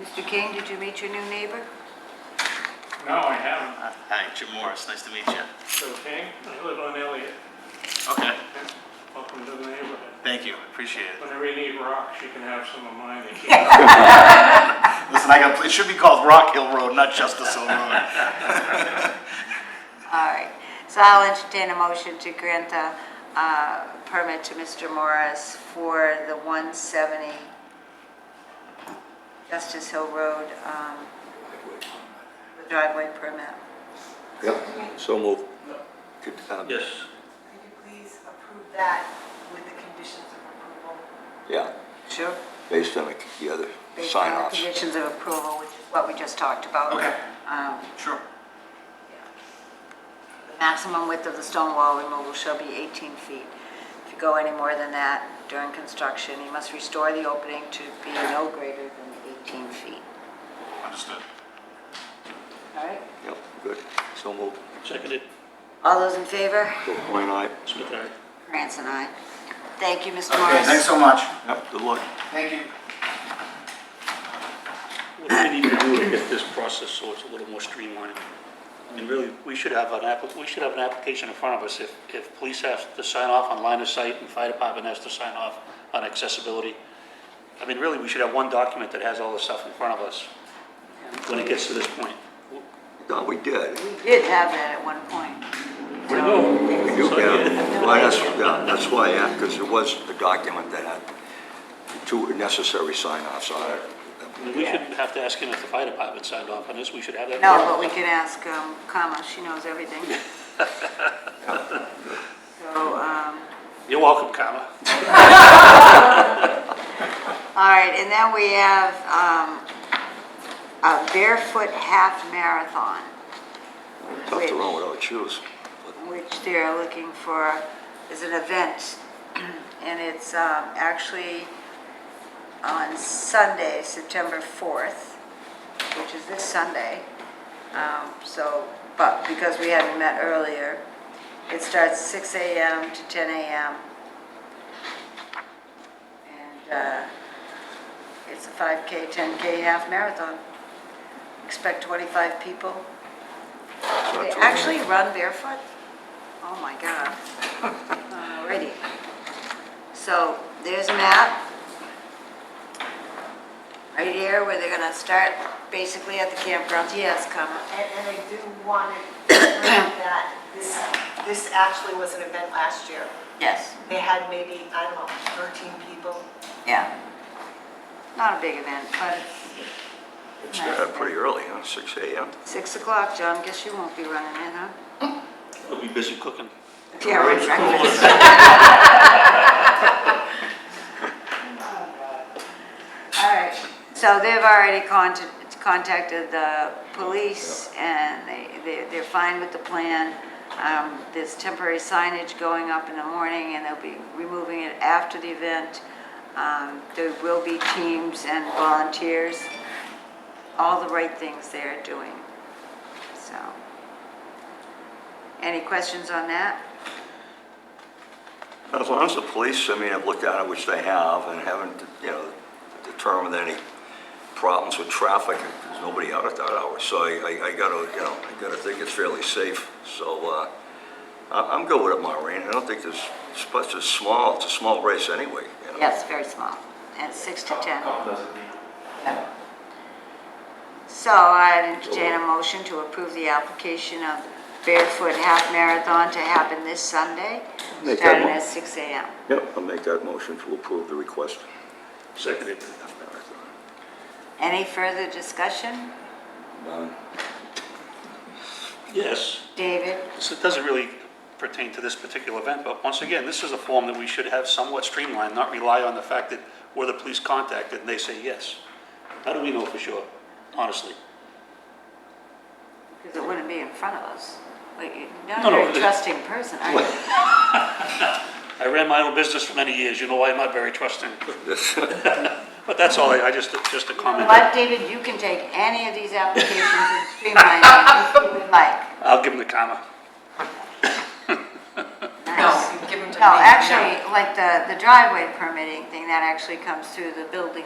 Mr. King, did you meet your new neighbor? No, I haven't. Hi, Jim Morris, nice to meet you. So King, I live on Elliott. Okay, Welcome to the neighborhood. thank you, appreciate it. Whenever you need rocks, you can have some of mine. They keep- Listen, I got, it should be called Rock Hill Road, not Justice Hill Road. All right, so I'll entertain a motion to grant a uh, permit to Mr. Morris for the 170 Justice Hill Road um, the driveway permit. Yep, so moved. Good time. Yes, Could you please approve that with the conditions of approval? Yeah, Sure. based on the other Based on sign the offs. conditions of approval, which is what we just talked about. Okay. Um, Sure. The Maximum width of the stone wall removal shall be 18 feet. If you go any more than that during construction, you must restore the opening to be no greater than 18 feet. Understood. All right? Yep, good, so moved. seconded, All those in favor? Coin eye. Smith, aye. Grants and I. Thank you, Mr. Okay, thanks Morris. so much. Yep, good luck. Thank you. What do we need to do to get this process so it's a little more streamlined? And really, we should have an app, we should have an application in front of us. If, if police have to sign off on line of sight and fire department has to sign off on accessibility. I mean, really, we should have one document that has all the stuff in front of us when it gets to this point. No, we did. We did have that at one point. Where'd it go? We do have, well, that's, yeah, that's why I asked, because there was a document that had two necessary sign offs on it. I mean, We shouldn't have to ask him if the fire department signed off on this. We should have that. in No, front of but we us. can ask um, Kama, she knows everything. So, um, You're welcome, Kama. all right, and then we have um, a barefoot half marathon, Tough to run without shoes. which they're looking for, is an event. And it's um, actually on Sunday, September 4th, which is this Sunday. Um, So, but because we hadn't met earlier, it starts 6 AM to 10 AM. And uh, it's a 5K, 10K half marathon. Expect 25 people. They actually run barefoot? Oh, my God. Alrighty. So there's a map right here where they're gonna start basically at the campground. Yes, Kama. And, and I do want to confirm that this, this actually was an event last year. Yes. They had maybe, I don't know, 13 people. Yeah. Not a big event, but it's It's uh, pretty early, huh, six AM? six o'clock, John. Guess you won't be running in, huh? We'll be busy cooking. Yeah, right, breakfast. All right, so they've already contact- contacted the police, and they, they- they're fine with the plan. Um, There's temporary signage going up in the morning, and they'll be removing it after the event. Um, There will be teams and volunteers, all the right things they're doing, so. Any questions on that? As long as the police, I mean, have looked at it, which they have, and haven't, you know, determined any problems with traffic, there's nobody out at that hour, so I, I- I gotta, you know, I gotta think it's fairly safe, so, uh, I, I'm good with it, Maureen, I don't think there's, it's but it's small, it's a small race anyway, you know? Yes, very small, and six to 10. Yeah. So I entertain a motion to approve the application of Barefoot Half Marathon to happen this Sunday, Make that starting mo- at 6 AM. Yep, I'll make that motion to approve the request. Seconded. Any further discussion? None. Yes. David? So it doesn't really pertain to this particular event, but once again, this is a form that we should have somewhat streamlined, not rely on the fact that we're the police contacted and they say yes. How do we know for sure, honestly? Because it wouldn't be in front of us. Wait, you're not No, a no, very it- trusting person, are you? I ran my own business for many years, you know I'm not very trusting. But that's all, I I just, just a comment. But David, you can take any of these applications and streamline them if you would like. I'll give them the comma. Nice. you give them to No, actually, like the the driveway permitting thing, that actually comes through the building